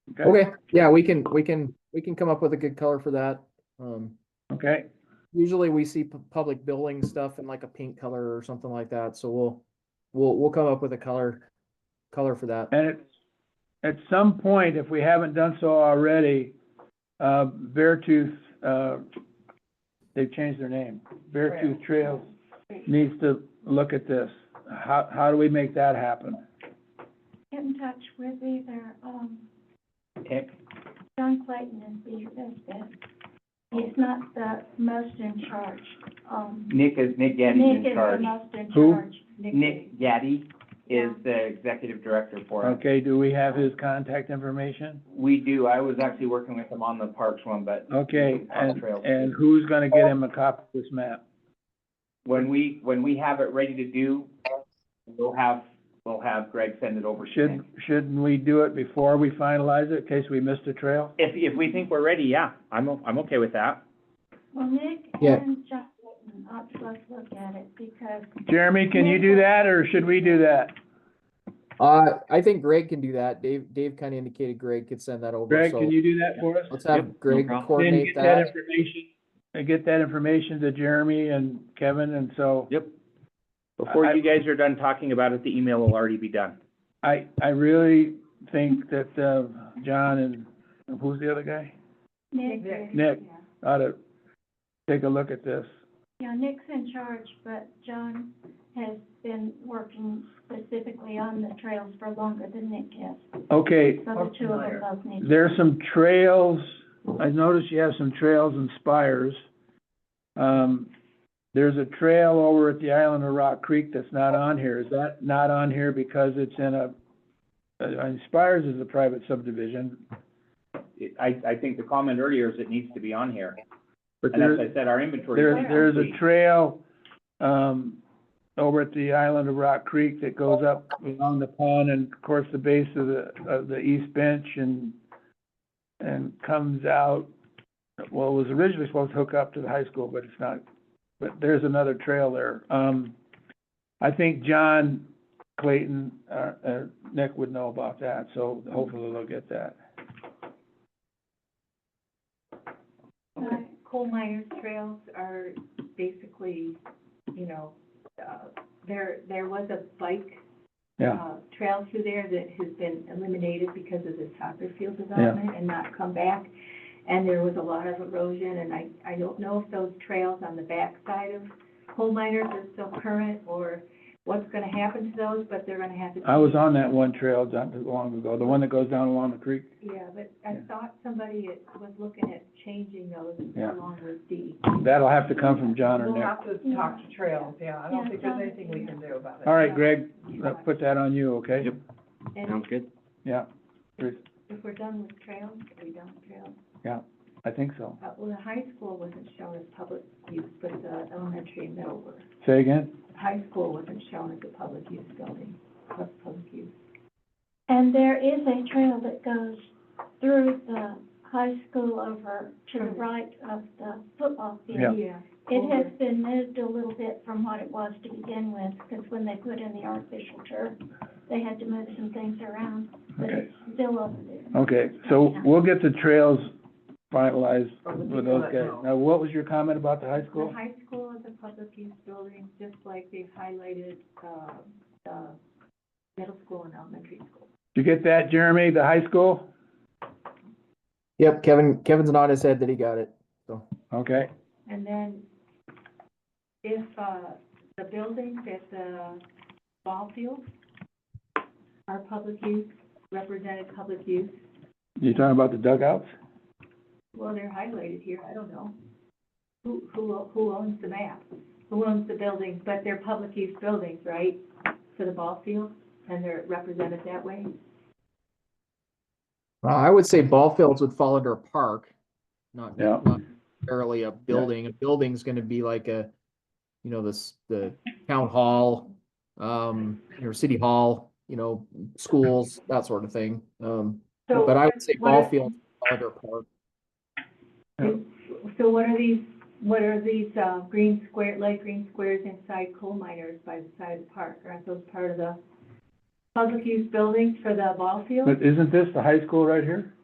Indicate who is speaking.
Speaker 1: Okay, yeah, we can, we can, we can come up with a good color for that. Um,
Speaker 2: Okay,
Speaker 1: usually we see pu- public building stuff in like a pink color or something like that, so we'll, we'll, we'll come up with a color, color for that.
Speaker 2: and it, at some point, if we haven't done so already, uh, Beartooth, uh, they've changed their name. Beartooth Trails needs to look at this. How, how do we make that happen?
Speaker 3: get in touch with either, um,
Speaker 2: Okay.
Speaker 3: John Clayton is the, is the, he's not the most in charge, um.
Speaker 4: Nick is, Nick Gaddy's
Speaker 3: Nick
Speaker 4: in
Speaker 3: is the
Speaker 4: charge.
Speaker 3: most in
Speaker 2: Who?
Speaker 3: charge. Um,
Speaker 4: Nick Gaddy is the executive director for us.
Speaker 2: Okay, do we have his contact information?
Speaker 4: We do, I was actually working with him on the parks one, but
Speaker 2: Okay,
Speaker 4: On
Speaker 2: and,
Speaker 4: trails.
Speaker 2: and who's gonna get him a copy of this map?
Speaker 4: when we, when we have it ready to do, we'll have, we'll have Greg send it over to Nick.
Speaker 2: Should, shouldn't we do it before we finalize it, in case we missed a trail?
Speaker 4: If, if we think we're ready, yeah, I'm, o- I'm okay with that.
Speaker 3: Well, Nick
Speaker 1: Yeah.
Speaker 3: and John Clayton ought to both look at it because
Speaker 2: Jeremy, can you do that, or should we do that?
Speaker 1: Uh, I think Greg can do that. Dave, Dave kind of indicated Greg could send that over,
Speaker 2: Greg,
Speaker 1: so
Speaker 2: can you do that for us?
Speaker 1: let's
Speaker 5: Yep,
Speaker 1: have
Speaker 5: no
Speaker 1: Greg
Speaker 5: problem.
Speaker 2: Then
Speaker 1: coordinate
Speaker 2: get that
Speaker 1: that.
Speaker 2: information, and get that information to Jeremy and Kevin, and so
Speaker 4: Yep. Before you guys are done talking about it, the email will already be done.
Speaker 2: I, I really think that, uh, John and, who's the other guy?
Speaker 3: Nick is.
Speaker 2: Nick.
Speaker 3: yeah.
Speaker 2: Ought to take a look at this.
Speaker 3: Yeah, Nick's in charge, but John has been working specifically on the trails for longer than Nick has.
Speaker 2: Okay,
Speaker 3: So the two of them both need. to-
Speaker 2: there's some trails, I noticed you have some trails and spires. Um, there's a trail over at the island of Rock Creek that's not on here, is that not on here because it's in a, uh, uh, Spires is a private subdivision,
Speaker 4: It- I, I think the comment earlier is it needs to be on here.
Speaker 2: but
Speaker 4: And
Speaker 2: there's.
Speaker 4: as I said, our inventory.
Speaker 2: There's,
Speaker 3: Yeah.
Speaker 2: there's a trail, um, over at the island of Rock Creek that goes up along the pond and of course the base of the, of the east bench and, and comes out, well, it was originally supposed to hook up to the high school, but it's not, but there's another trail there. Um, I think John Clayton, uh, uh, Nick would know about that, so hopefully they'll get that.
Speaker 6: Uh, Coal miners' trails are basically, you know, uh, there, there was a bike,
Speaker 2: Yeah,
Speaker 6: uh, trail through there that has been eliminated because of the soccer field development and not come back. And there was a lot of erosion, and I, I don't know if those trails on the backside of coal miners are still current or what's gonna happen to those, but they're gonna have to.
Speaker 2: I was on that one trail not too long ago, the one that goes down along the creek.
Speaker 6: Yeah, but I
Speaker 2: Yeah.
Speaker 6: thought somebody was looking at changing those
Speaker 2: Yeah.
Speaker 6: along with D.
Speaker 2: That'll have to come from John or
Speaker 7: We'll
Speaker 2: Nick.
Speaker 7: have to talk to Trails, yeah, I
Speaker 3: Yeah,
Speaker 7: don't think there's
Speaker 3: John,
Speaker 7: anything we
Speaker 3: yeah.
Speaker 7: can do about it.
Speaker 2: All right, Greg, let's put that on you, okay?
Speaker 5: Yep.
Speaker 6: And
Speaker 5: Sounds good.
Speaker 2: Yeah,
Speaker 6: If we're done with trails, are we done with trails?
Speaker 2: I think so.
Speaker 6: Uh, well, the high school wasn't shown as public use, but the elementary and middle were.
Speaker 2: Say again?
Speaker 6: High school wasn't shown as a public use building, pub- public use.
Speaker 3: And there is a trail that goes through the high school over to the right of the football
Speaker 2: Yeah.
Speaker 3: field. It has been moved a little bit from what it was to begin with, because when they put in the artificial turf, they had to move some things around, but
Speaker 2: Okay,
Speaker 3: it's still over there.
Speaker 2: okay, so we'll get the trails finalized
Speaker 7: Or would
Speaker 2: with
Speaker 7: you
Speaker 2: those
Speaker 7: let
Speaker 2: guys.
Speaker 7: know?
Speaker 2: Now, what was your comment about the high
Speaker 6: The
Speaker 2: school?
Speaker 6: high school is a public use building, just like they've highlighted, uh, the middle school and elementary school.
Speaker 2: Did you get that, Jeremy, the high school?
Speaker 1: Yep, Kevin, Kevin's nodded his head that he got it.
Speaker 2: Okay,
Speaker 6: And then if, uh, the buildings at the ball field are public use, represented public use,
Speaker 2: you talking about the dugouts?
Speaker 6: well, they're highlighted here, I don't know. Who, who, who owns the map? Who owns the buildings, but they're public use buildings, right? For the ball field, and they're represented that way?
Speaker 1: Well, Uh, I would say ball fields would fall under a park, not
Speaker 2: Yeah.
Speaker 1: not necessarily a building. A building's gonna be like a, you know, this, the town hall, um, or city hall, you know, schools, that sort of thing. Um,
Speaker 6: So
Speaker 1: but I would say
Speaker 6: what
Speaker 1: ball
Speaker 6: are-
Speaker 1: fields fall under a park.
Speaker 6: So what are these, what are these, uh, green square, light green squares inside coal miners by the side of the park? Aren't those part of the public use buildings for the ball field?
Speaker 2: But isn't this the high school right here?